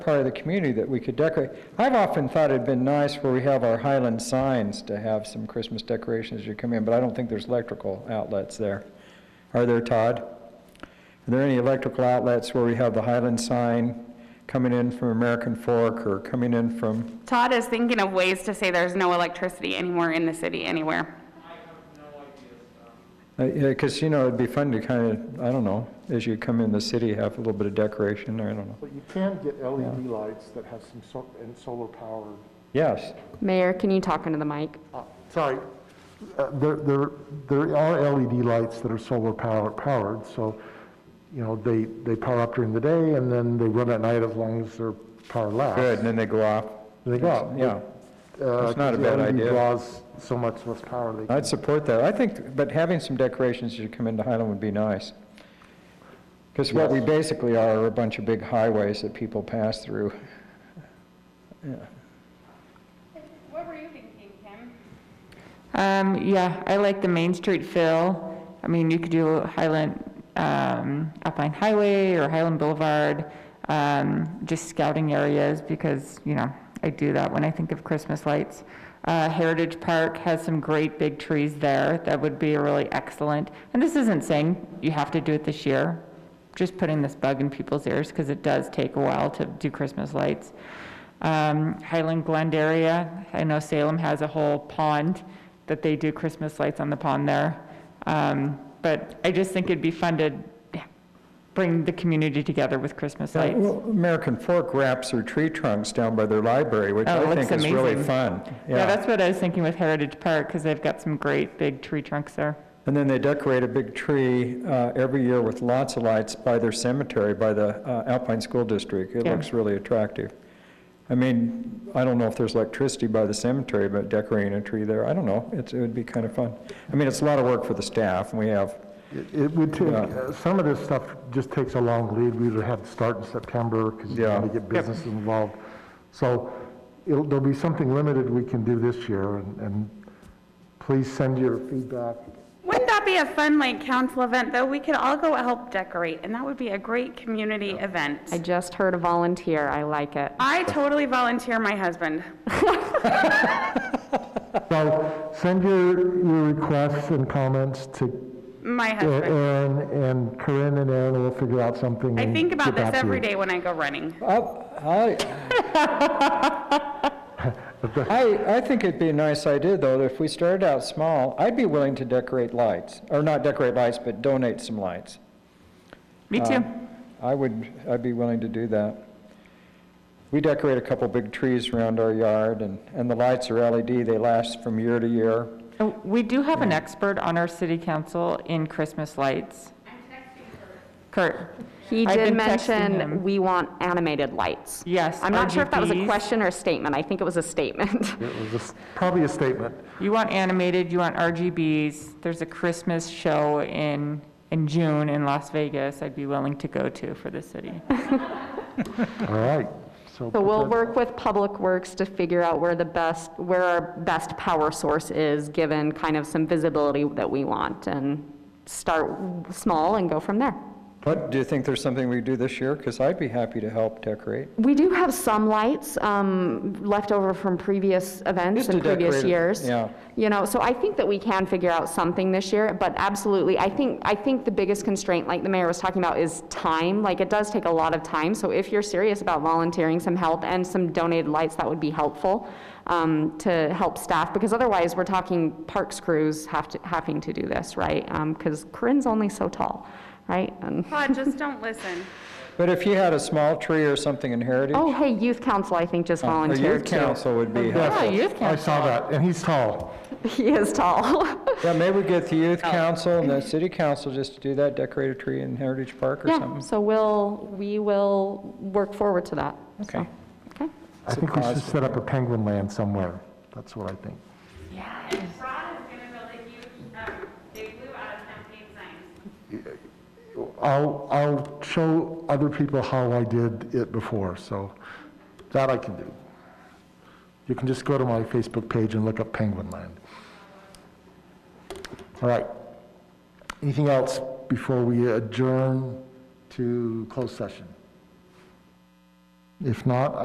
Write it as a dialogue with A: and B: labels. A: part of the community that we could decorate. I've often thought it'd been nice where we have our Highland signs to have some Christmas decorations as you come in, but I don't think there's electrical outlets there. Are there, Todd? Are there any electrical outlets where we have the Highland sign coming in from American Fork or coming in from,
B: Todd is thinking of ways to say there's no electricity anymore in the city anywhere.
A: because, uh, you know, it'd be fun to kind of, I don't know, as you come in the city, have a little bit of decoration, I don't know.
C: But you can get LED lights that have some, so- and solar powered.
A: Yes,
B: Mayor, can you talk into the mic?
C: uh, Sorry, Uh, there, there, there are LED lights that are solar power- powered, so, you know, they, they power up during the day and then they run at night as long as their power lasts.
A: good, and then they go off.
C: They go out.
A: Yeah.
C: Uh,
A: That's not a
C: 'cause
A: bad
C: LED
A: idea.
C: draws so much less power. They
A: I'd support that. I think, but having some decorations as you come into Highland would be nice. Because what we basically are are a bunch of big highways that people pass through.
B: What were you thinking, Kim?
D: Um, yeah, I like the Main Street fill. I mean, you could do Highland, um, Alpine Highway or Highland Boulevard, um, just scouting areas because, you know, I do that when I think of Christmas lights. Uh, Heritage Park has some great big trees there that would be really excellent. And this isn't saying you have to do it this year, just putting this bug in people's ears because it does take a while to do Christmas lights. Um, Highland Glen area, I know Salem has a whole pond that they do Christmas lights on the pond there. Um, but I just think it'd be fun to bring the community together with Christmas lights.
A: Well, American Fork wraps their tree trunks down by their library, which
D: Oh, it
A: I
D: looks
A: think is really
D: amazing.
A: fun.
D: Yeah, that's what I was thinking with Heritage Park because they've got some great big tree trunks there.
A: And then they decorate a big tree uh, every year with lots of lights by their cemetery, by the uh, Alpine School District. It
D: Yeah.
A: looks really attractive. I mean, I don't know if there's electricity by the cemetery, but decorating a tree there, I don't know. It's- It would be kind of fun. I mean, it's a lot of work for the staff, and we have,
C: It it would take,
A: Yeah.
C: uh, some of this stuff just takes a long lead. We would have to start in September because you
A: Yeah.
C: want to get businesses involved. So it'll, there'll be something limited we can do this year, and, and please send your feedback.
B: Wouldn't that be a fun, like, council event, though? We could all go help decorate, and that would be a great community
E: I
B: event.
E: just heard a volunteer, I like it.
B: I totally volunteer my husband.
C: So send your, your requests and comments to
B: My
C: A-
B: husband.
C: Aaron, and Corinne and Aaron will figure out something.
B: I
C: and
B: think about
C: get
B: this
C: back to
B: every
C: you.
B: day when I go running.
A: I, I, I think it'd be a nice idea, though, if we started out small, I'd be willing to decorate lights, or not decorate lights, but donate some lights.
D: Me too.
A: I would, I'd be willing to do that. We decorate a couple big trees around our yard, and, and the lights are LED, they last from year to year.
D: And Oh, We do have an expert on our city council in Christmas lights. Kurt,
E: He
D: I've
E: did
D: been texting
E: mention
D: him.
E: we want animated lights.
D: Yes,
E: I'm not sure if that was a
D: RGBs.
E: question or a statement, I think it was a statement.
C: It was a s- probably a statement.
D: you want animated, you want RGBs. There's a Christmas show in, in June in Las Vegas I'd be willing to go to for the city.
C: All right.
E: So
C: put
E: we'll
C: that-
E: work with Public Works to figure out where the best, where our best power source is, given kind of some visibility that we want, and start small and go from there.
A: What, do you think there's something we could do this year? Because I'd be happy to help decorate.
E: We do have some lights um, left over from previous events
A: Just to
E: and
A: decorate
E: previous
A: it,
E: years.
A: yeah.
E: You know, so I think that we can figure out something this year, but absolutely, I think, I think the biggest constraint, like the mayor was talking about, is time. Like, it does take a lot of time, so if you're serious about volunteering some help and some donated lights, that would be helpful um, to help staff, because otherwise, we're talking parks crews have to, having to do this, right? Because Corinne's only so tall, right? And,
B: Todd, just don't listen.
A: But if you had a small tree or something in Heritage,
E: oh, hey, youth council, I think, just
A: a Oh, youth
E: volunteered too.
A: council would be helpful.
D: Yeah, youth
C: I saw that, and he's tall.
E: He is tall.
A: Yeah, maybe we get the youth
E: Oh.
A: council and the city council just to do that, decorate a tree in Heritage Park or
E: Yeah,
A: something.
E: so we'll, we will work forward to that.
A: Okay.
E: Okay.
C: I think we should set up a penguin land somewhere. That's what I think.
B: Rod is gonna build a huge, um, big blue out of campaign signs.
C: I'll, I'll show other people how I did it before, so that I can do. You can just go to my Facebook page and look up Penguin Land. All right. Anything else before we adjourn to closed session? If not,